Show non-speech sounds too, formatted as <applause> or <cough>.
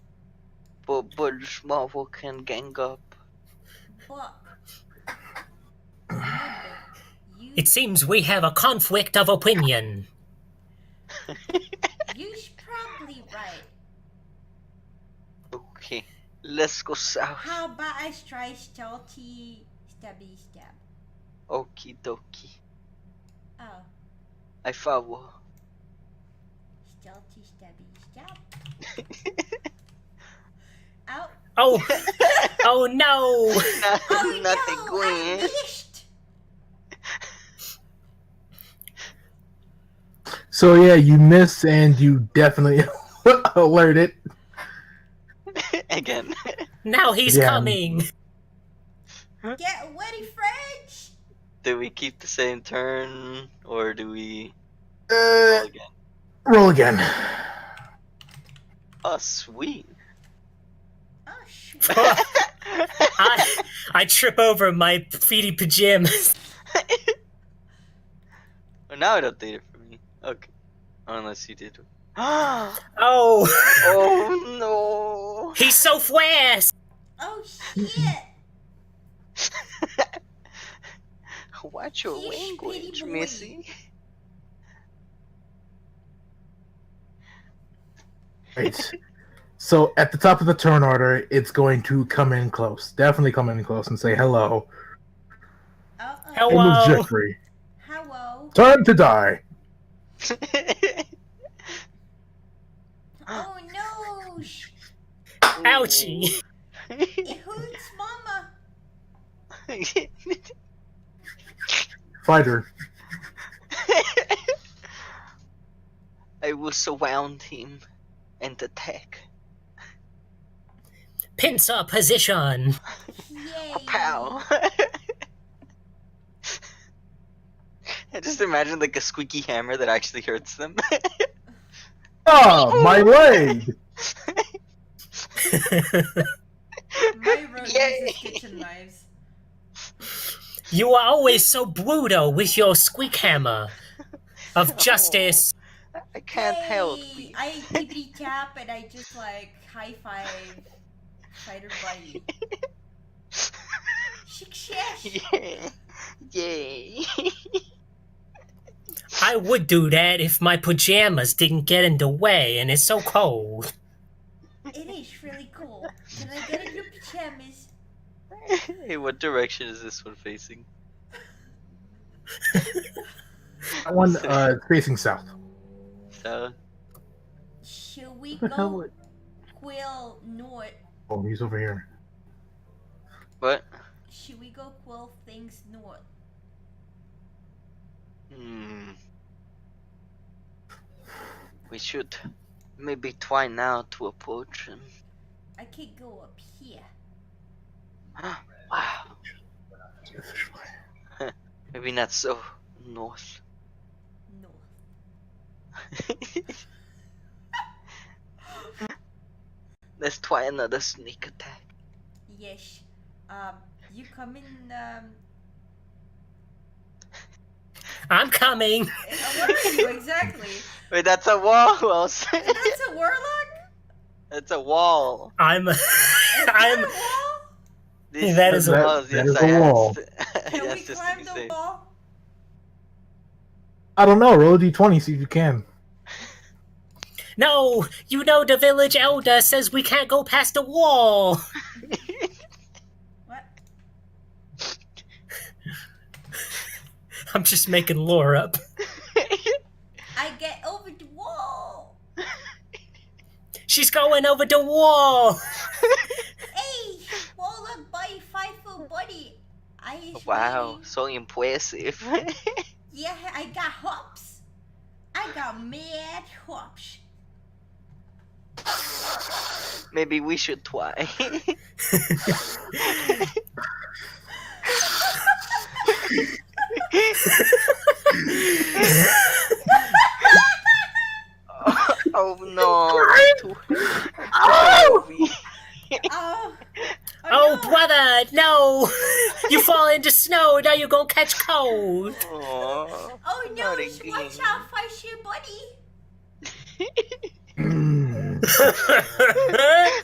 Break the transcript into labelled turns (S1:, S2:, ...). S1: what Budge Marvel can gang up.
S2: Buck. You,
S3: It seems we have a conflict of opinion.
S2: you should probably right.
S1: Okay, let's go south.
S2: How about I try salty stabby stab?
S1: Okie dokie.
S2: Oh,
S1: I follow.
S2: salty stabby stab. Out.
S3: Oh, oh no!
S1: <laughs> Not,
S2: Oh
S1: nothing
S2: no,
S1: going
S2: I
S1: in.
S2: missed.
S4: So yeah, you miss and you definitely <laughs> alert it.
S1: Again.
S3: Now he's
S4: Yeah.
S3: coming!
S2: Get ready, French.
S1: Do we keep the same turn or do we roll
S4: Uh,
S1: again?
S4: roll again.
S1: Oh, sweet. <laughs>
S2: Oh shoot.
S3: I, I trip over my feety pajamas.
S1: Well, now I don't think it for me. Okay. Unless you did. <gasps> oh
S3: Oh,
S1: no.
S3: he's so fast!
S2: Oh shit.
S1: Watch your
S2: He's pretty
S1: language,
S2: boy.
S1: Missy.
S4: Right. so at the top of the turn order, it's going to come in close. Definitely come in close and say hello.
S2: Oh,
S3: Help.
S4: End of
S3: Wow.
S4: Jeffrey.
S2: Hello.
S4: Time to die.
S1: <laughs>
S2: Oh no. sh-
S1: <laughs>
S3: Ouchie!
S2: It hurts, Mama.
S4: Fighter.
S1: <laughs> I will surround him and attack.
S3: Pincer position!
S2: Yay.
S1: Pow. <laughs> I just imagine like a squeaky hammer that actually hurts them. <laughs>
S4: Oh, my leg.
S5: My road
S1: <laughs> Yay.
S5: uses kitchen knives.
S3: You are always so brutal with your squeak hammer of justice.
S1: I can't help.
S2: Hey, I tippity tap and I just like high five fighter buddy. Success.
S1: <laughs> Yeah. <laughs> Yay.
S3: I would do that if my pajamas didn't get in the way and it's so cold.
S2: It is really cool. Can I get in your pajamas?
S1: hey, what direction is this one facing?
S4: That one uh, it's facing south.
S1: So,
S2: Should we
S4: What the hell
S2: go
S4: would-
S2: quill north?
S4: Oh, he's over here.
S1: what?
S2: Should we go quill things north?
S1: Hmm. We should maybe try now to approach him.
S2: I could go up here.
S1: <gasps> wow. Maybe not so north.
S2: North.
S1: Let's try another sneak attack.
S2: Yes. Um, you come in. Um,
S3: I'm coming!
S1: <laughs>
S5: I want you, exactly.
S1: Wait, that's a wall, Wells.
S5: That's a warlock?
S1: that's a wall.
S3: I'm. <laughs> I'm.
S5: Is that
S1: <laughs>
S5: a
S1: This
S3: That is a-
S4: That-
S1: walls,
S4: that
S1: yes,
S4: is a
S1: I
S4: wall.
S1: asked. <laughs>
S5: wall? Can
S1: Yes,
S5: we
S1: just to
S5: climb
S1: be
S5: the
S1: safe.
S5: wall?
S4: I don't know. Roll a d20. See if you can. <clears throat>
S3: No! You know the village elder says we can't go past the wall! <laughs>
S2: what?
S3: I'm just making lore up.
S2: I get over the wall.
S3: She's going over the wall!
S2: Hey, wall up by five foot buddy. I is
S1: Wow,
S2: ready.
S1: so impressive. <laughs>
S2: Yeah, I got hops. I got mad hops.
S1: Maybe we should try. oh, no! Too- too <laughs>
S2: Oh.
S3: Oh,
S2: no.
S3: brother, no! <laughs> You fall into snow, now you're gonna catch cold!
S1: heavy. Aw.
S2: Oh no,
S1: Not
S2: it's watch
S1: again.
S2: out, fight your buddy.
S4: Mm.